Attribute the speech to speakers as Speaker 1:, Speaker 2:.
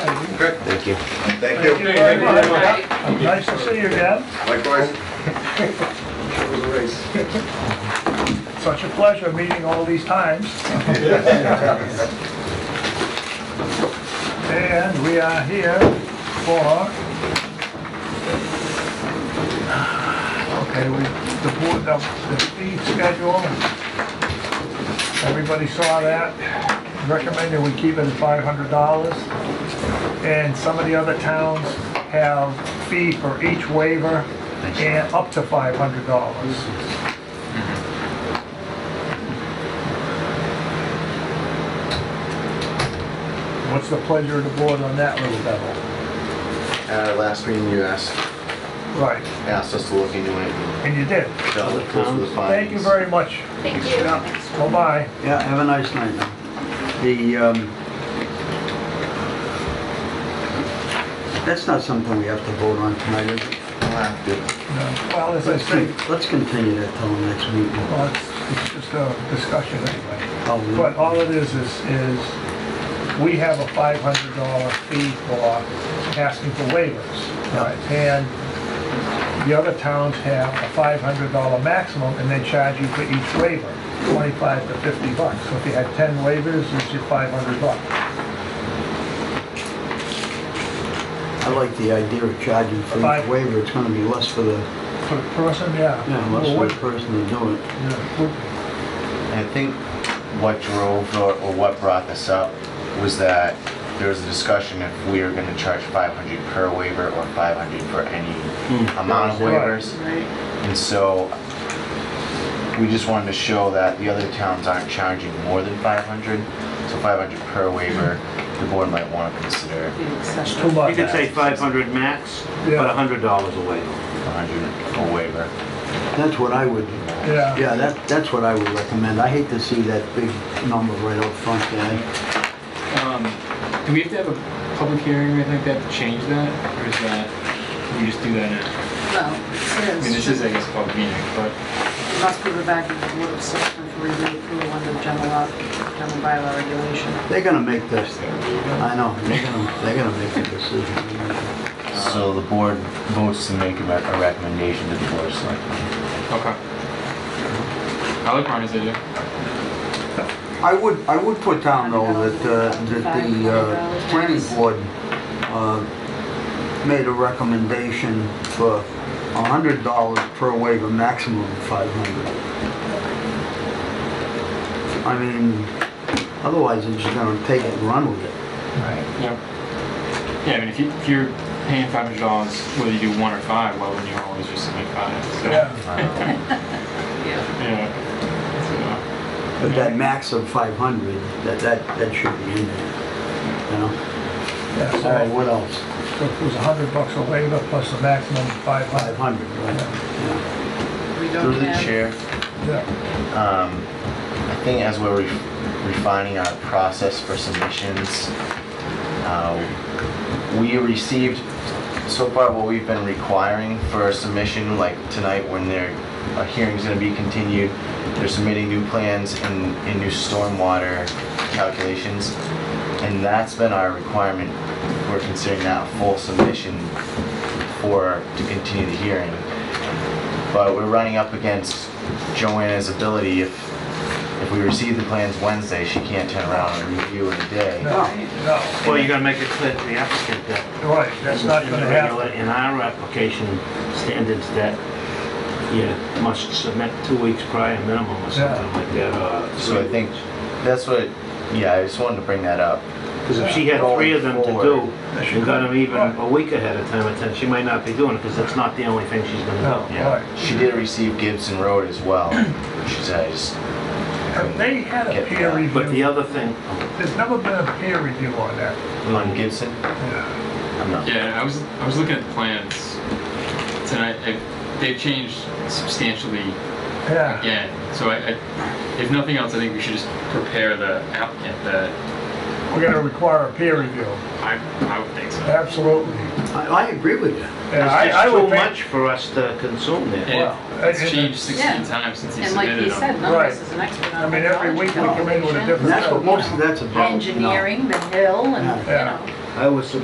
Speaker 1: Okay,
Speaker 2: Thank you.
Speaker 1: thank you.
Speaker 3: Thank you very much.
Speaker 4: Nice to see you again.
Speaker 1: Likewise.
Speaker 4: Such a pleasure meeting all these times. And we are here for... Okay, we, the board, the the fee schedule. Everybody saw that. Recommended we keep it at $500. And some of the other towns have fee for each waiver and up to $500. What's the pleasure of the board on that little devil?
Speaker 2: At our last meeting, you asked,
Speaker 4: Right,
Speaker 2: asked us to look into it. and
Speaker 4: and you did.
Speaker 2: dealt with those were the
Speaker 4: Thank you
Speaker 2: findings.
Speaker 4: very much.
Speaker 5: Thank you.
Speaker 4: Bye-bye.
Speaker 6: Yeah, have a nice night. man. The, um, that's not something we have to vote on tonight, is it?
Speaker 4: Well, as I
Speaker 6: Let's
Speaker 4: say,
Speaker 6: con- Let's continue that till the next meeting.
Speaker 4: well, it's it's just a discussion anyway.
Speaker 6: I'll-
Speaker 4: But all it is, is, is we have a $500 fee for asking for waivers.
Speaker 6: Yeah.
Speaker 4: right? And the other towns have a $500 maximum, and they charge you for each waiver, 25 to 50 bucks. So if you had 10 waivers, it's your 500 bucks.
Speaker 6: I like the idea of charging for
Speaker 4: Five.
Speaker 6: each waiver, it's gonna be less for the,
Speaker 4: For the person, yeah.
Speaker 6: yeah,
Speaker 4: Well,
Speaker 6: less for
Speaker 4: what-
Speaker 6: the person to do it.
Speaker 4: Yeah,
Speaker 2: I think what drove or or what brought this up was that there was a discussion if we are gonna charge 500 per waiver or 500 for any amount of waivers. And so we just wanted to show that the other towns aren't charging more than 500. So 500 per waiver, the board might wanna consider
Speaker 4: it's Too much.
Speaker 7: You could say 500 max,
Speaker 4: Yeah.
Speaker 7: but $100 a waiver.
Speaker 2: 100 for waiver.
Speaker 6: That's what I would,
Speaker 4: Yeah,
Speaker 6: yeah, that, that's what I would recommend. I hate to see that big number right up front there.
Speaker 8: Um, Do we have to have a public hearing or anything like that to change that, or is that, we just do that now?
Speaker 5: Well,
Speaker 8: I
Speaker 5: it
Speaker 8: mean, this is,
Speaker 5: says,
Speaker 8: I guess, a public meeting, but
Speaker 5: it must be back in the board of selectmen for review approval under general law, general bylaw regulation.
Speaker 6: They're gonna make this, I know, they're gonna, they're gonna make the decision.
Speaker 2: So the board votes to make a rec- a recommendation to the board of selectmen.
Speaker 8: Okay. I like Ron's idea.
Speaker 6: I would, I would put down though that, uh, that the uh, planning board uh, made a recommendation for a hundred dollars per waiver, maximum of five hundred. I mean, otherwise they're just gonna take it and run with it.
Speaker 4: right.
Speaker 8: Yeah. Yeah, I mean, if you, if you're paying five hundred dollars, whether you do one or five, why wouldn't you always just submit five? So,
Speaker 4: Yeah.
Speaker 8: Yeah.
Speaker 6: But that max of five hundred, that, that, that should be in there, you know?
Speaker 4: Yeah,
Speaker 6: All right,
Speaker 4: so
Speaker 6: what else?
Speaker 4: so if it was a hundred bucks a waiver plus the maximum five
Speaker 6: Five
Speaker 4: hundred.
Speaker 6: hundred, right?
Speaker 5: We don't
Speaker 2: Through the
Speaker 5: have,
Speaker 2: chair,
Speaker 4: Yeah,
Speaker 2: um, I think as we're re- refining our process for submissions, uh, we received, so far what we've been requiring for a submission, like tonight when their, a hearing's gonna be continued, they're submitting new plans and, and new stormwater calculations. And that's been our requirement. We're considering that a full submission for, to continue the hearing but we're running up against Joanna's ability if, if we receive the plans Wednesday, she can't turn around and review in a day.
Speaker 4: no,
Speaker 7: Well, you gotta make it clear to the applicant that.
Speaker 4: no, right, that's not gonna happen.
Speaker 7: In our application standards that you must submit two weeks prior minimum or something like that. uh,
Speaker 2: So I think that's what, yeah, I just wanted to bring that up.
Speaker 7: Because if she had three of them to do, and got them even a week ahead of time, then she might not be doing it, because that's not the only thing she's
Speaker 4: No,
Speaker 7: gonna do.
Speaker 2: Yeah.
Speaker 4: right.
Speaker 2: She did receive Gibson Road as well, which is, I just,
Speaker 4: Have They had a peer
Speaker 7: But the
Speaker 4: review.
Speaker 7: other thing,
Speaker 4: There's never been a peer review on that.
Speaker 2: on Gibson,
Speaker 4: Yeah.
Speaker 2: I'm not.
Speaker 8: Yeah, I was, I was looking at the plans tonight, I- they've changed substantially
Speaker 4: Yeah,
Speaker 8: Yeah, so I, I, if nothing else, I think we should just prepare the applicant that,
Speaker 4: we're gonna require a peer review,
Speaker 8: I, I would think so.
Speaker 4: absolutely.
Speaker 6: I, I agree with you.
Speaker 4: And I-
Speaker 7: it's
Speaker 4: I
Speaker 7: just
Speaker 4: would
Speaker 7: too
Speaker 4: think-
Speaker 7: much for us to consume there.
Speaker 8: And
Speaker 4: Wow.
Speaker 8: It's
Speaker 4: And-
Speaker 8: changed
Speaker 5: Yeah.
Speaker 8: sixteen times since he
Speaker 5: and like
Speaker 8: submitted
Speaker 5: he
Speaker 8: them.
Speaker 5: said, none of
Speaker 4: Right.
Speaker 5: us is an expert
Speaker 4: I
Speaker 5: on
Speaker 4: mean, every week
Speaker 5: hydrology,
Speaker 4: we come in with a
Speaker 5: elevation,
Speaker 4: different.
Speaker 6: And that's what most of that's about. you know.
Speaker 5: Engineering, the hill, and, you
Speaker 4: Yeah.
Speaker 5: know.
Speaker 7: I was